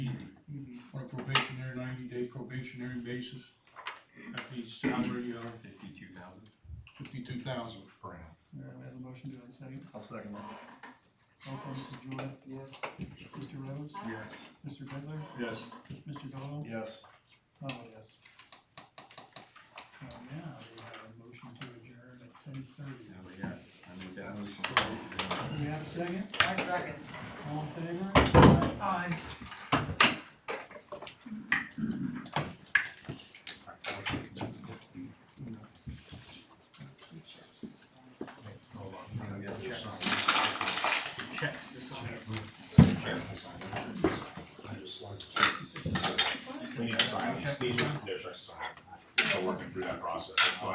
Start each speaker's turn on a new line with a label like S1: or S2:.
S1: probationary basis at the salary of
S2: Fifty-two thousand.
S1: fifty-two thousand per annum.
S3: All right, we have a motion, do I have a second?
S2: I'll second that.
S3: Roll call, Mrs. Joy. Yes. Mr. Rhodes?
S2: Yes.
S3: Mr. Bidler?
S1: Yes.
S3: Mr. Doyle?
S2: Yes.
S3: Oh, yes. Uh, now, we have a motion to adjourn at ten thirty.
S2: Now we got, I made that motion.
S3: Do we have a second?
S4: I second.
S3: All in favor?
S4: Aye.
S2: I got checks. Checks to sign.
S5: We need to sign, these are, there's a sign, so working through that process.